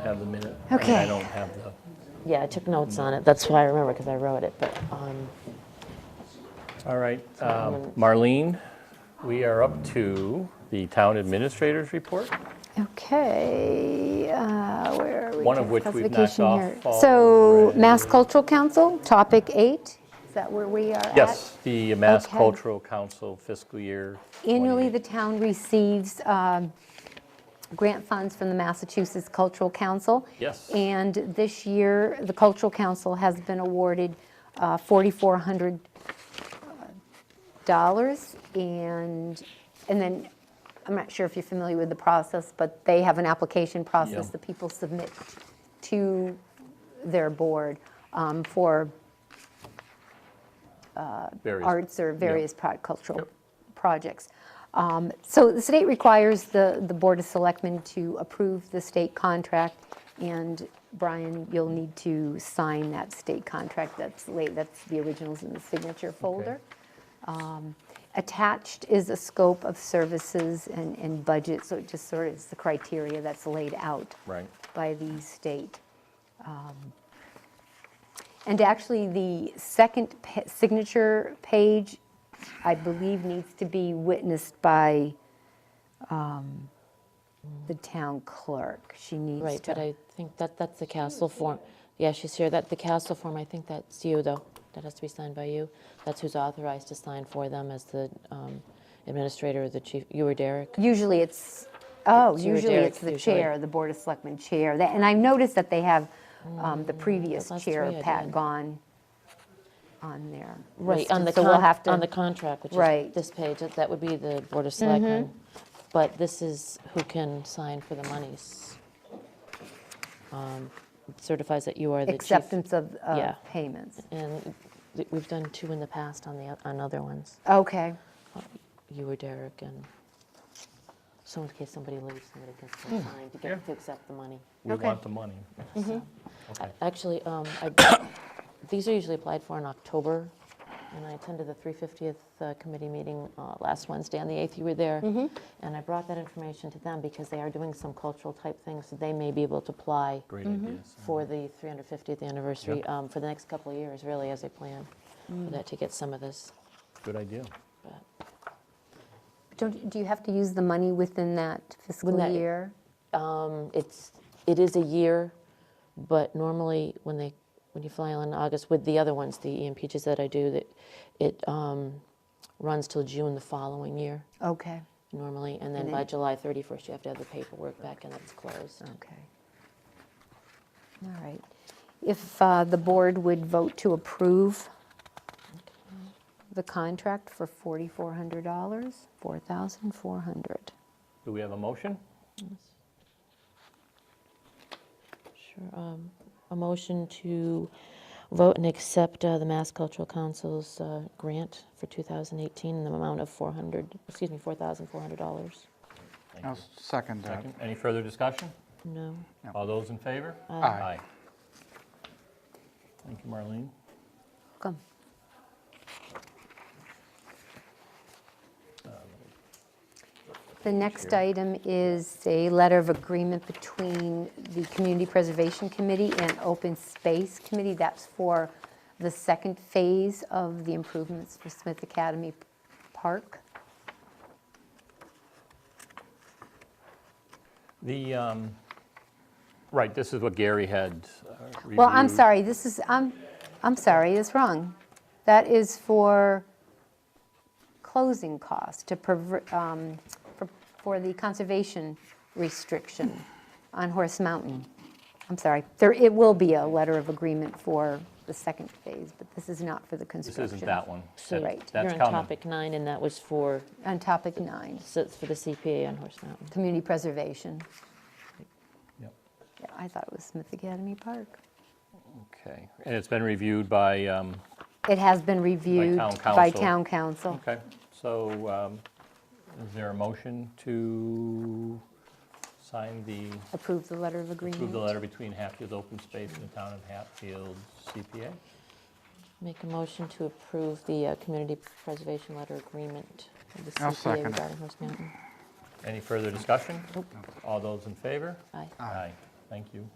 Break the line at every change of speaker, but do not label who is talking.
have the minute. I mean, I
Okay.
don't have the,
Yeah, I took notes on it. That's why I remember, because I wrote it, but, um,
all right. um, Marlene, we are up to the town administrator's report.
Okay, uh, where are we?
One of which we've knocked
Classification
off
here.
already.
So Mass Cultural Council, topic eight, is that where we are at?
Yes, the Mass
Okay.
Cultural Council fiscal year.
Annually,
28.
the town receives um, grant funds from the Massachusetts Cultural Council.
Yes.
And this year, the Cultural Council has been awarded uh, $4,400. And, and then, I'm not sure if you're familiar with the process, but they have an application process
Yeah.
that people submit to their board um, for
Various-
arts or
yeah.
various pro- cultural projects. Um, So the state requires the, the Board of Selectmen to approve the state contract, and Brian, you'll need to sign that state contract, that's late, that's the originals in the signature folder. Um, Attached is a scope of services and, and budget, so it just sort of is the criteria that's laid out
Right.
by the state. Um, And actually, the second pa- signature page, I believe, needs to be witnessed by um, the town clerk. She needs
right, but
to,
I think that, that's the castle form. Yeah, she's here, that, the castle form, I think that's you, though. That has to be signed by you. That's who's authorized to sign for them as the um, administrator or the chief, you or Derek?
usually it's, oh,
It's you or
usually
Derek,
it's the
usually.
chair, the Board of Selectmen chair. That- And I noticed that they have um, the previous
last
chair,
Oh, three I
Pat
did.
Gone, on there.
Right, on
listed, So
the,
we'll
con-
have
on the
to,
contract, which is
Right.
this page, that- that would be the Board of Selectmen. But this is who can sign for the monies. Um, Certifies that you are the chief.
acceptance of of
Yeah.
payments.
And th- we've done two in the past on the, o- on other ones,
Okay,
you or Derek, and so in case somebody leaves, somebody can still sign to
Yeah.
get, to accept the money.
We
Okay.
want the money. Okay.
Actually, um, I- these are usually applied for in October, and I attended the 350th uh, committee meeting uh, last Wednesday, on the 8th, you were there. And I brought that information to them because they are doing some cultural type things, so they may be able to apply
Great
Mm-hmm.
ideas.
for the 350th anniversary, um, for the next couple of years, really, as a plan, for that to get some of this.
Good idea.
but-
Don't- do you have to use the money within that fiscal
that-
year?
Um, It's, it is a year, but normally when they, when you fly on August with the other ones, the E EMP just that I do, that it um, runs till June the following year
Okay.
normally, and then
And
by
then-
July 31st, you have to have the paperwork back and it's closed.
Okay. All right. If uh, the board would vote to approve the contract for $4,400, $4,400.
Do we have a motion?
Sure. um, A motion to vote and accept uh, the Mass Cultural Council's uh, grant for 2018 in the amount of 400, excuse me, $4,400.
Thank
I'll
you.
second that.
Second. Any further discussion?
No?
All those in favor?
Aye.
Thank you, Marlene.
Come. The next item is a letter of agreement between the Community Preservation Committee and Open Space Committee. That's for the second phase of the improvements for Smith Academy Park.
The, um, right, this is what Gary had uh, reviewed.
Well, I'm sorry, this is, I'm, I'm sorry, it's wrong. That is for closing costs to, perver- um, for- for the conservation restriction on Horse Mountain. I'm sorry, there, it will be a letter of agreement for the second phase, but this is not for the
This
construction.
isn't that one.
So
That-
Right.
That's
You're on
coming.
topic nine, and that was for,
On topic nine,
so it's for the CPA on Horse Mountain.
community preservation.
Yep.
Yeah, I thought it was Smith Academy Park.
Okay. And it's been reviewed by, um,
It has been reviewed by
council.
town council.
okay, so um, is there a motion to sign the,
Approve the letter of agreement.
approve the letter between Hatfield Open Space and the Town of Hatfield CPA?
Make a motion to approve the uh, community preservation letter agreement with the
I'll
CPA
second it.
regarding Horse Mountain.
Any further discussion? All those in favor?
Aye.
Aye. Thank you.